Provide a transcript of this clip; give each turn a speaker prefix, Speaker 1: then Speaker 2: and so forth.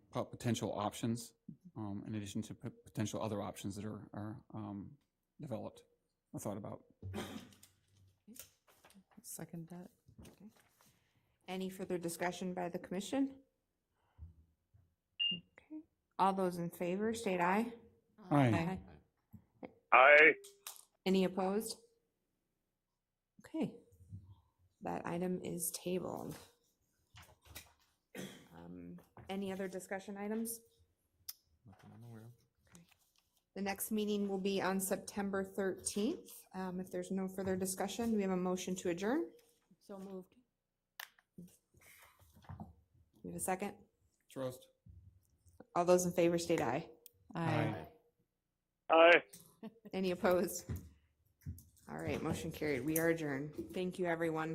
Speaker 1: po- potential options, um, in addition to p- potential other options that are, are, um, developed or thought about.
Speaker 2: Second that.
Speaker 3: Any further discussion by the commission? Okay. All those in favor, state aye.
Speaker 1: Aye.
Speaker 4: Aye.
Speaker 3: Any opposed? Okay. That item is tabled. Um, Any other discussion items? Okay. The next meeting will be on September 13th. Um, If there's no further discussion, we have a motion to adjourn.
Speaker 2: So moved.
Speaker 3: We have a second.
Speaker 1: Trust.
Speaker 3: All those in favor state aye.
Speaker 1: Aye.
Speaker 4: Aye.
Speaker 3: Any opposed? All right, motion carried. We are adjourned. Thank you, everyone.